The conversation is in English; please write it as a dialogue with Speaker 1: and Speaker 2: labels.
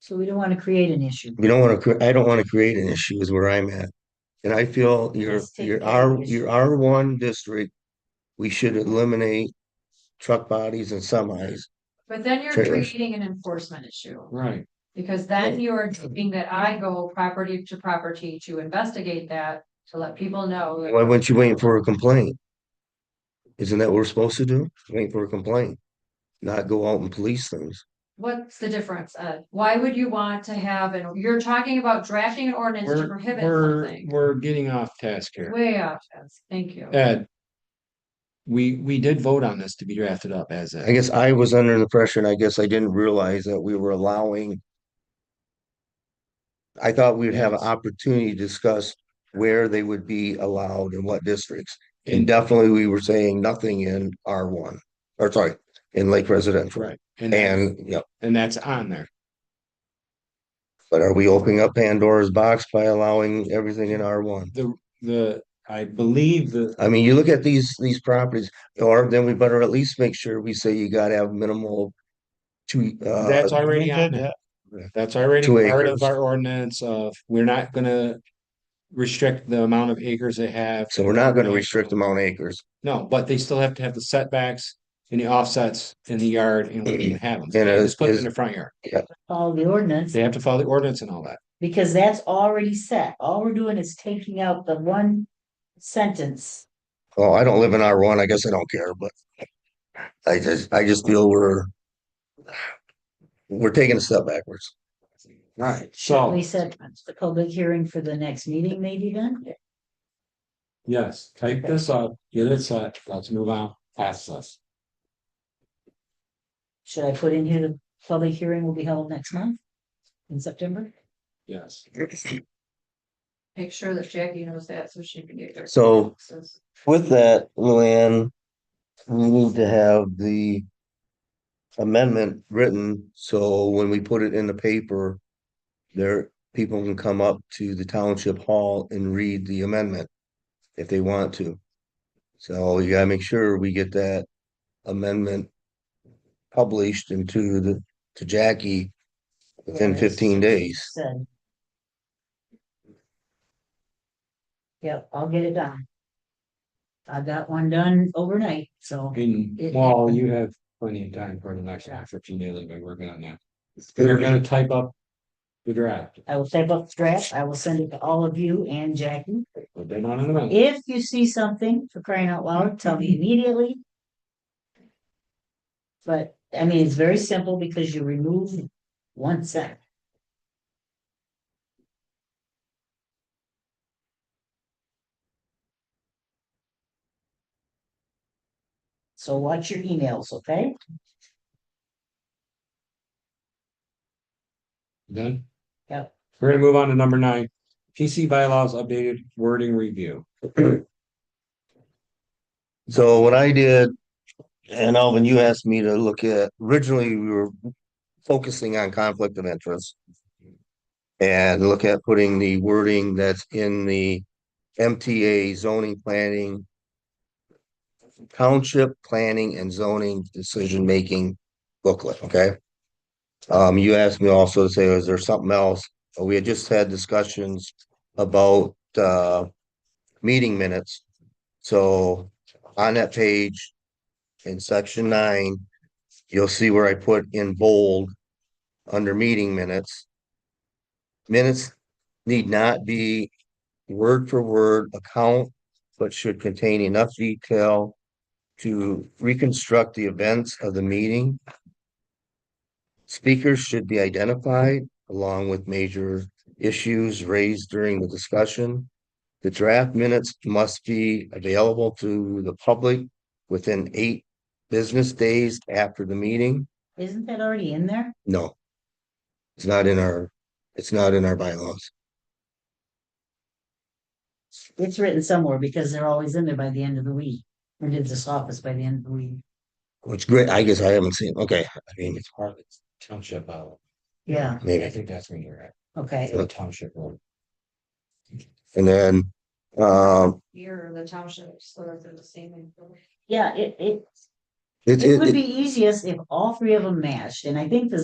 Speaker 1: So we don't want to create an issue.
Speaker 2: You don't want to, I don't want to create an issue is where I'm at. And I feel your,
Speaker 1: Let's take
Speaker 2: your
Speaker 1: care of
Speaker 2: R,
Speaker 1: the
Speaker 2: your
Speaker 1: issue.
Speaker 2: R one district, we should eliminate truck bodies and semis.
Speaker 3: But then you're
Speaker 2: Trailers.
Speaker 3: creating an enforcement issue,
Speaker 4: Right,
Speaker 3: because then you are doing that I go property to property to investigate that, to let people know. that-
Speaker 2: Why weren't you waiting for a complaint? Isn't that what we're supposed to do? Wait for a complaint? Not go out and police things.
Speaker 3: What's the difference, Ed? Why would you want to have, and you're talking about drafting an ordinance to
Speaker 4: we're,
Speaker 3: prohibit
Speaker 4: we're,
Speaker 3: something?
Speaker 4: we're getting off task here.
Speaker 3: Way off, Jess. thank you.
Speaker 4: Ed. We, we did vote on this to be drafted up as
Speaker 2: I
Speaker 4: a,
Speaker 2: guess I was under the pressure and I guess I didn't realize that we were allowing. I thought we'd have an opportunity to discuss where they would be allowed and what districts. And
Speaker 4: and,
Speaker 2: definitely we were saying nothing in R one, or sorry, in Lake Residential.
Speaker 4: right, and, that's-
Speaker 2: And, yeah,
Speaker 4: and that's on there.
Speaker 2: but are we opening up Pandora's box by allowing everything in R one?
Speaker 4: The, the, I believe the,
Speaker 2: I mean, you look at these, these properties, or then we better at least make sure we say you gotta have minimal. Two, uh.
Speaker 4: that's already on there. That's already
Speaker 2: Two
Speaker 4: part
Speaker 2: acres.
Speaker 4: of our ordinance of, we're not gonna restrict the amount of acres they have.
Speaker 2: So we're not gonna restrict the amount of acres,
Speaker 4: No, but they still have to have the setbacks and the offsets in the yard and we can have them.
Speaker 2: And
Speaker 4: They
Speaker 2: is-
Speaker 4: Just put it
Speaker 2: is-
Speaker 4: in the front yard.
Speaker 1: Follow the ordinance,
Speaker 4: They have to follow the ordinance and all that.
Speaker 1: because that's already set. All we're doing is taking out the one sentence.
Speaker 2: well, I don't live in R one, I guess I don't care, but. I just, I just feel we're. We're taking a step backwards,
Speaker 4: Right,
Speaker 1: Shall
Speaker 4: so,
Speaker 1: We set the public hearing for the next meeting, maybe then?
Speaker 4: yes, type this up, get it set, let's move on, past this.
Speaker 1: Should I put in here the public hearing will be held next month? In September?
Speaker 4: Yes.
Speaker 3: Make sure that Jackie knows that so she can get there.
Speaker 2: so. With that, Luann, we need to have the amendment written, so when we put it in the paper, there, people can come up to the township hall and read the amendment if they want to. So you gotta make sure we get that amendment published into the, to Jackie within
Speaker 1: Yes.
Speaker 2: fifteen days.
Speaker 1: Said. Yep, I'll get it done. I got one done overnight, so.
Speaker 4: And
Speaker 1: It-
Speaker 4: well, you have plenty of time for the next half if you need it, but we're gonna now. We're gonna type up the draft,
Speaker 1: I will type up the draft. I will send it to all of you and Jackie.
Speaker 4: but they're not in a minute.
Speaker 1: If you see something for crying out loud, tell me immediately. But, I mean, it's very simple because you remove one sentence. So watch your emails, okay?
Speaker 4: Done?
Speaker 1: Yep.
Speaker 4: We're gonna move on to number nine, PC bylaws updated wording review.
Speaker 2: So what I did, and Alvin, you asked me to look at, originally we were focusing on conflict of interest. And look at putting the wording that's in the MTA zoning planning. Township planning and zoning decision making booklet, okay? Um, you asked me also to say, is there something else? We had just had discussions about uh meeting minutes. So on that page in section nine, you'll see where I put in bold under meeting minutes. Minutes need not be word for word account, but should contain enough detail to reconstruct the events of the meeting. Speakers should be identified along with major issues raised during the discussion. The draft minutes must be available to the public within eight business days after the meeting.
Speaker 1: Isn't that already in there?
Speaker 2: No. It's not in our, it's not in our bylaws.
Speaker 1: It's written somewhere because they're always in there by the end of the week. Or did this office by the end of the week?
Speaker 2: Which great, I guess I haven't seen, okay, I mean,
Speaker 4: it's part of the township bylaw.
Speaker 1: Yeah,
Speaker 2: maybe.
Speaker 4: think that's when you're at,
Speaker 1: okay.
Speaker 2: the
Speaker 4: township one.
Speaker 2: And then, um,
Speaker 3: Here, the township, so that they're the same. information.
Speaker 1: Yeah, it, it,
Speaker 2: it,
Speaker 1: it
Speaker 2: it,
Speaker 1: would
Speaker 2: it-
Speaker 1: be easiest if all three of them matched, and I think the